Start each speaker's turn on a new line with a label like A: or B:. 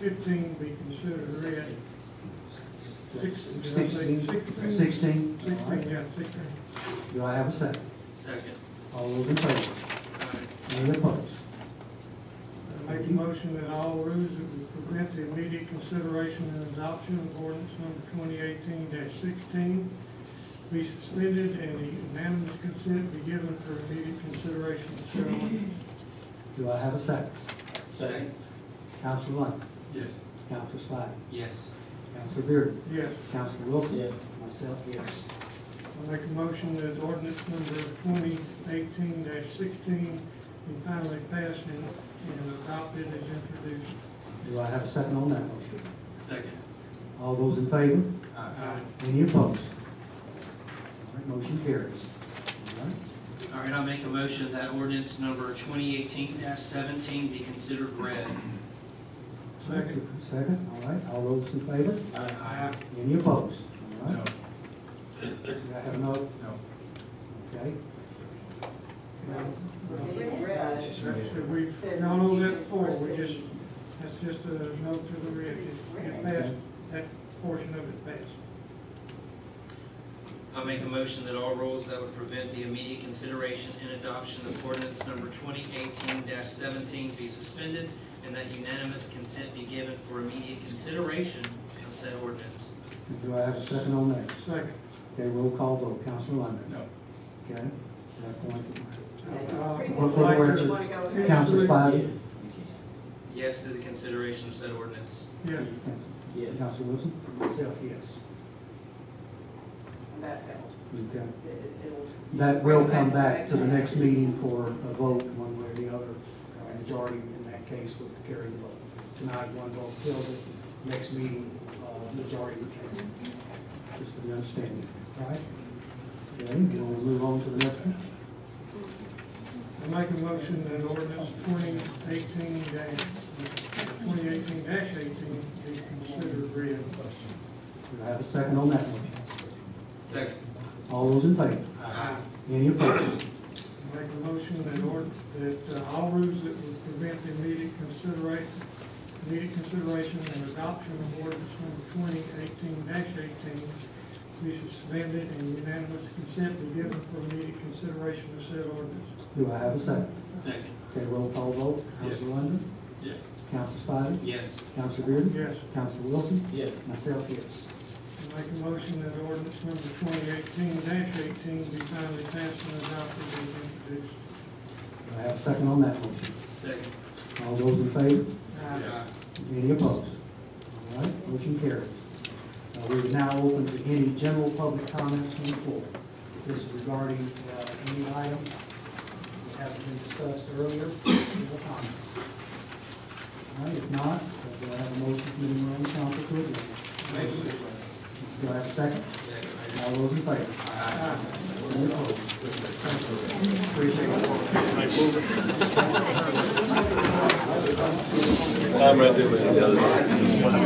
A: fifteen be considered red, sixteen, did I say sixteen?
B: Sixteen. Sixteen. All
A: Sixteen,
B: right.
A: yeah, sixteen.
B: Do I have a second?
C: Second.
B: All those in favor? Any opposed?
A: I Make a motion that all rules that would prevent the immediate consideration and adoption of ordinance number twenty eighteen sixteen be suspended and the unanimous consent be given for immediate consideration of said ordinance.
B: Do I have a second?
C: Second.
B: Counselor London?
C: Yes.
B: Counselor Spidey?
C: Yes.
B: Counselor Bearden?
A: Yes,
B: Counselor Wilson?
C: Yes.
B: Myself, yes.
A: I make a motion that ordinance number twenty eighteen sixteen be finally passed and, and adopted as introduced.
B: Do I have a second on that motion?
C: Second. Uh,
B: All those in favor?
C: Aye.
B: Any opposed? All right, motion carries. All right.
C: All right, I'll make a motion that ordinance number twenty eighteen seventeen be considered read.
A: Second.
B: Second, all right, all those in favor?
C: Aye.
B: Any opposed? All right. Do I have no? No. Okay,
A: So we've gone over that before, we just, that's just a note to the rear, it it passed, that portion of it passed.
C: I'll make a motion that all rules that would prevent the immediate consideration and adoption of ordinance number twenty eighteen seventeen be suspended and that unanimous consent be given for immediate consideration of said ordinance.
B: and do I have a second on that?
A: Second,
B: Okay, roll call vote, Counselor London?
C: No.
B: Okay, at that point,
A: uh, Yes.
B: Counselor Spidey?
C: Yes to the consideration of said ordinance.
A: yes,
B: Yes. Counselor Wilson? Myself, yes. Okay, that will come back to the next meeting for a vote, one way or the other. Uh, Majority in that case would carry the vote. Tonight, one vote kills it, next meeting, uh, majority retains it. Just for the understanding, all right? Okay, we'll move on to the next one.
A: I make a motion that ordinance twenty eighteen twenty eighteen eighteen be considered read.
B: Do I have a second on that one?
C: Second.
B: All those in favor?
C: Aye.
B: Any opposed?
A: I Make a motion that ord, that uh, all rules that would prevent the immediate consideration, immediate consideration and adoption of ordinance number twenty eighteen eighteen be suspended and unanimous consent be given for immediate consideration of said ordinance.
B: Do I have a second?
C: Second.
B: Okay, roll call vote. Counselor London?
C: Yes.
B: Counselor Spidey?
C: Yes.
B: Counselor Bearden?
A: Yes.
B: Counselor Wilson?
C: Yes.
B: Myself, yes.
A: I Make a motion that ordinance number twenty eighteen eighteen be finally passed and adopted as introduced.
B: Do I have a second on that motion?
C: Second.
B: All those in favor?
A: Aye.
B: Any opposed? All right, motion carries. Uh, We are now open to any general public comments from the floor. This is regarding uh, any items that haven't been discussed earlier, general comments. All right, if not, uh, do I have a motion from the room, Council to adjourn? Do I have a second? All those in favor? Any opposed? Appreciate it.
D: I'm right there with you.